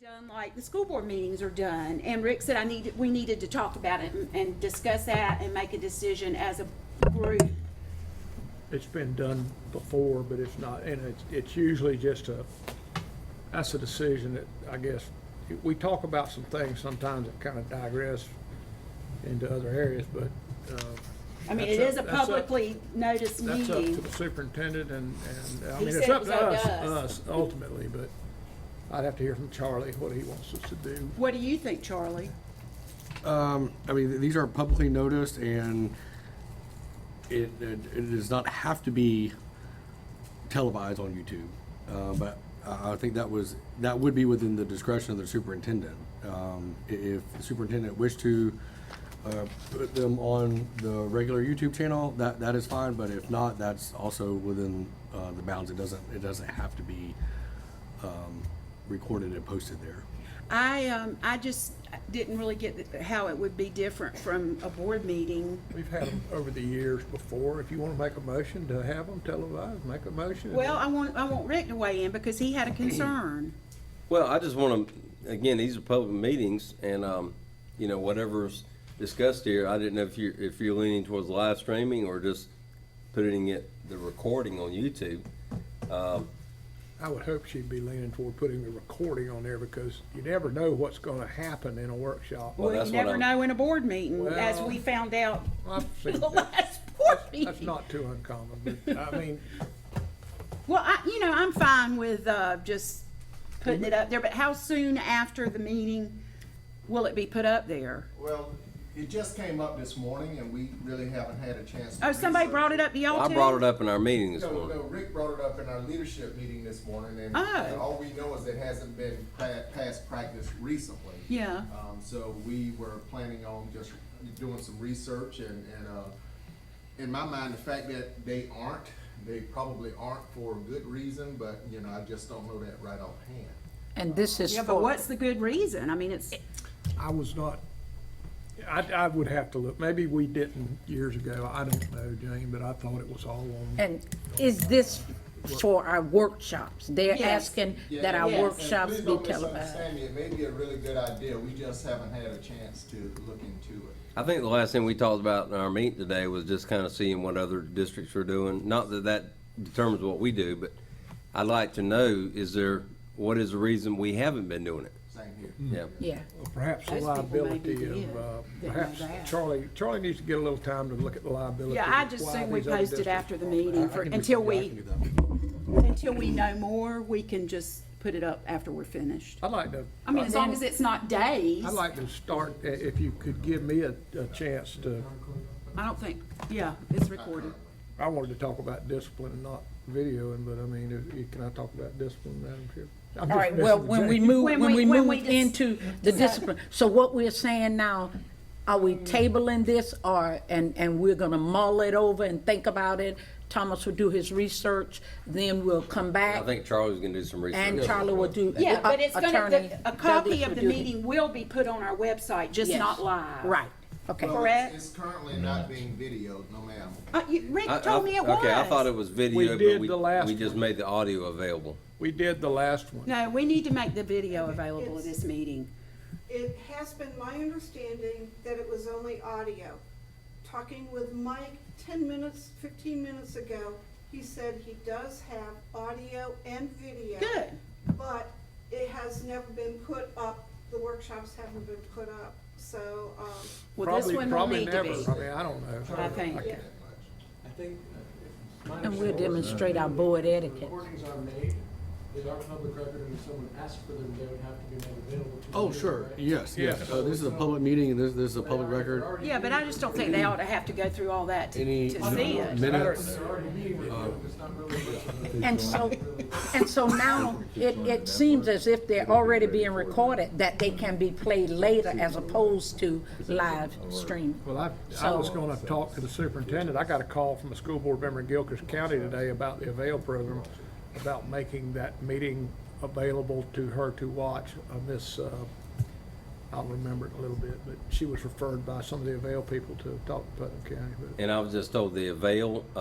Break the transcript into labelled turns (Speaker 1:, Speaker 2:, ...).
Speaker 1: done like the school board meetings are done. And Rick said I need, we needed to talk about it and- and discuss that and make a decision as a group.
Speaker 2: It's been done before, but it's not, and it's, it's usually just a, that's a decision that, I guess, we talk about some things sometimes that kind of digress into other areas, but, uh.
Speaker 1: I mean,
Speaker 2: that's
Speaker 1: it
Speaker 2: up-
Speaker 1: is a
Speaker 2: that's up-
Speaker 1: publicly noticed
Speaker 2: That's up to
Speaker 1: meeting.
Speaker 2: the superintendent and, and, I
Speaker 1: He
Speaker 2: mean,
Speaker 1: said
Speaker 2: it's
Speaker 1: it
Speaker 2: up
Speaker 1: was
Speaker 2: to
Speaker 1: up to
Speaker 2: us,
Speaker 1: us.
Speaker 2: us ultimately, but I'd have to hear from Charlie what he wants us to do.
Speaker 1: What do you think, Charlie?
Speaker 3: Um, I mean, these are publicly noticed and it, it it does not have to be televised on YouTube. Uh, but I, I think that was, that would be within the discretion of the superintendent. Um, i- if the superintendent wished to, uh, put them on the regular YouTube channel, that, that is fine, but if not, that's also within, uh, the bounds. It doesn't, it doesn't have to be, um, recorded and posted there.
Speaker 1: I, um, I just didn't really get the- how it would be different from a board meeting.
Speaker 2: We've had them over the years before. If you want to make a motion to have them televised, make a motion.
Speaker 1: Well, I want, I want Rick to weigh in because he had a concern.
Speaker 4: Well, I just want to, again, these are public meetings, and, um, you know, whatever's discussed here, I didn't know if you're, if you're leaning towards live streaming or just putting it, the recording on YouTube. Um,
Speaker 2: I would hope she'd be leaning toward putting the recording on there because you never know what's going to happen in a workshop.
Speaker 4: Well,
Speaker 1: Well,
Speaker 4: that's
Speaker 1: you
Speaker 4: what
Speaker 1: never
Speaker 4: I'm-
Speaker 1: know in a board meeting, as
Speaker 2: Well-
Speaker 1: we found out
Speaker 2: I've seen
Speaker 1: the
Speaker 2: that.
Speaker 1: last board meeting.
Speaker 2: That's not too uncommon, but I mean,
Speaker 1: Well, I, you know, I'm fine with, uh, just putting it up there, but how soon after the meeting will it be put up there?
Speaker 5: Well, it just came up this morning and we really haven't had a chance to.
Speaker 1: Oh, somebody
Speaker 5: research
Speaker 1: brought it up to y'all
Speaker 4: I
Speaker 1: too?
Speaker 4: brought it up in our meeting this
Speaker 5: No, no,
Speaker 4: morning.
Speaker 5: Rick brought it up in our leadership meeting this morning and
Speaker 1: Oh.
Speaker 5: all we know is it hasn't been pa- past practice recently.
Speaker 1: Yeah.
Speaker 5: Um, so we were planning on just doing some research and, and, uh, in my mind, the fact that they aren't, they probably aren't for a good reason, but, you know, I just don't know that right offhand.
Speaker 6: And this is
Speaker 1: Yeah, but
Speaker 6: for,
Speaker 1: what's the good reason? I mean, it's,
Speaker 2: I was not, I, I would have to look. Maybe we didn't years ago. I don't know, Jane, but I thought it was all on.
Speaker 6: and is this for our workshops? They're
Speaker 1: Yes.
Speaker 6: asking
Speaker 5: Yeah,
Speaker 6: that our
Speaker 5: and- and
Speaker 6: workshops
Speaker 5: please
Speaker 6: be uh,
Speaker 5: don't
Speaker 6: televised.
Speaker 5: misunderstand me. It may be a really good idea, we just haven't had a chance to look into it.
Speaker 4: I think the last thing we talked about in our meeting today was just kind of seeing what other districts are doing. Not that that determines what we do, but I'd like to know, is there, what is the reason we haven't been doing it?
Speaker 5: Same here.
Speaker 4: Yeah.
Speaker 6: Yeah,
Speaker 2: uh, Perhaps
Speaker 1: Most
Speaker 2: the
Speaker 1: people maybe
Speaker 2: liability
Speaker 1: did
Speaker 2: of, uh,
Speaker 1: that know
Speaker 2: perhaps
Speaker 1: that.
Speaker 2: Charlie, Charlie needs to get a little time to look at the liability.
Speaker 1: yeah, I
Speaker 2: of
Speaker 1: just
Speaker 2: why
Speaker 1: think we
Speaker 2: these other
Speaker 1: post it
Speaker 2: districts-
Speaker 1: after the meeting for, until we, until we know more, we can just put it up after we're finished.
Speaker 2: I'd like to. uh,
Speaker 1: I mean, as long as it's not days,
Speaker 2: I'd
Speaker 1: I
Speaker 2: like to start, i- if you could give me a, a chance to,
Speaker 1: don't think, yeah, it's recorded.
Speaker 2: I wanted to talk about discipline and not videoing, but I mean, if, you- can I talk about discipline, Madam Chair? I'm
Speaker 6: all
Speaker 2: just
Speaker 6: right, well,
Speaker 2: messing with
Speaker 6: when we
Speaker 2: Jane.
Speaker 6: move,
Speaker 1: When
Speaker 6: when
Speaker 1: we-
Speaker 6: we
Speaker 1: when
Speaker 6: move
Speaker 1: we dis-
Speaker 6: into the discipline, so what we're saying now, are we tabling this or, and, and we're gonna mull it over and think about it? Thomas will do his research, then we'll come
Speaker 4: I
Speaker 6: back
Speaker 4: think Charlie's gonna do some research.
Speaker 6: and Charlie will do.
Speaker 1: Yeah, but it's gonna,
Speaker 6: Attorney
Speaker 1: the- a
Speaker 6: Douglas
Speaker 1: copy
Speaker 6: will
Speaker 1: of the
Speaker 6: do his-
Speaker 1: meeting will be put on our website, just
Speaker 6: Yes.
Speaker 1: not live.
Speaker 6: Right, okay.
Speaker 5: Well,
Speaker 1: Correct.
Speaker 5: it's- It's currently not being videoed, no ma'am.
Speaker 1: Uh, you, Rick
Speaker 4: I- I-
Speaker 1: told me it was.
Speaker 4: Okay, I thought it was
Speaker 2: We
Speaker 4: video,
Speaker 2: did
Speaker 4: but we,
Speaker 2: the last
Speaker 4: we just
Speaker 2: one.
Speaker 4: made the audio available.
Speaker 2: We did the last one.
Speaker 1: No, we need to make the video available at this meeting.
Speaker 7: It has been my understanding that it was only audio. Talking with Mike ten minutes, fifteen minutes ago, he said he does have audio and video.
Speaker 1: Good.
Speaker 7: But it has never been put up, the workshops haven't been put up, so, um,
Speaker 1: Well, this
Speaker 2: Probably-
Speaker 1: one will
Speaker 2: probably
Speaker 1: need to
Speaker 2: never.
Speaker 1: be.
Speaker 2: I mean, I don't know.
Speaker 1: I think.
Speaker 2: can't-
Speaker 8: I think. uh,
Speaker 6: And we'll demonstrate our board etiquette.
Speaker 8: Recordings are made, they are public record, and if someone asks for them, they would have to be made available to.
Speaker 3: Oh,
Speaker 8: the
Speaker 3: sure,
Speaker 8: media, right?
Speaker 3: yes, yes.
Speaker 2: Yes.
Speaker 3: Uh, This is a public meeting, and this, this is a public
Speaker 8: They're already-
Speaker 3: record.
Speaker 8: they're already
Speaker 1: Yeah, but I
Speaker 8: being
Speaker 1: just don't think they ought to have to go through all that to,
Speaker 3: Any
Speaker 1: to see it.
Speaker 3: minutes?
Speaker 8: They're already being
Speaker 3: Uh,
Speaker 8: recorded, it's not really much of a.
Speaker 6: And so, and so now, it, it seems as if they're already being recorded, that they can be played later as opposed to live stream.
Speaker 2: Well, I, I was gonna talk to the superintendent. I got a call from a school board member in Gilchrist County today about the Avail program, about making that meeting available to her to watch. Uh, Miss, uh, I'll remember it in a little bit, but she was referred by some of the Avail people to talk to Putnam County. but-
Speaker 4: And I was just told the avail, uh,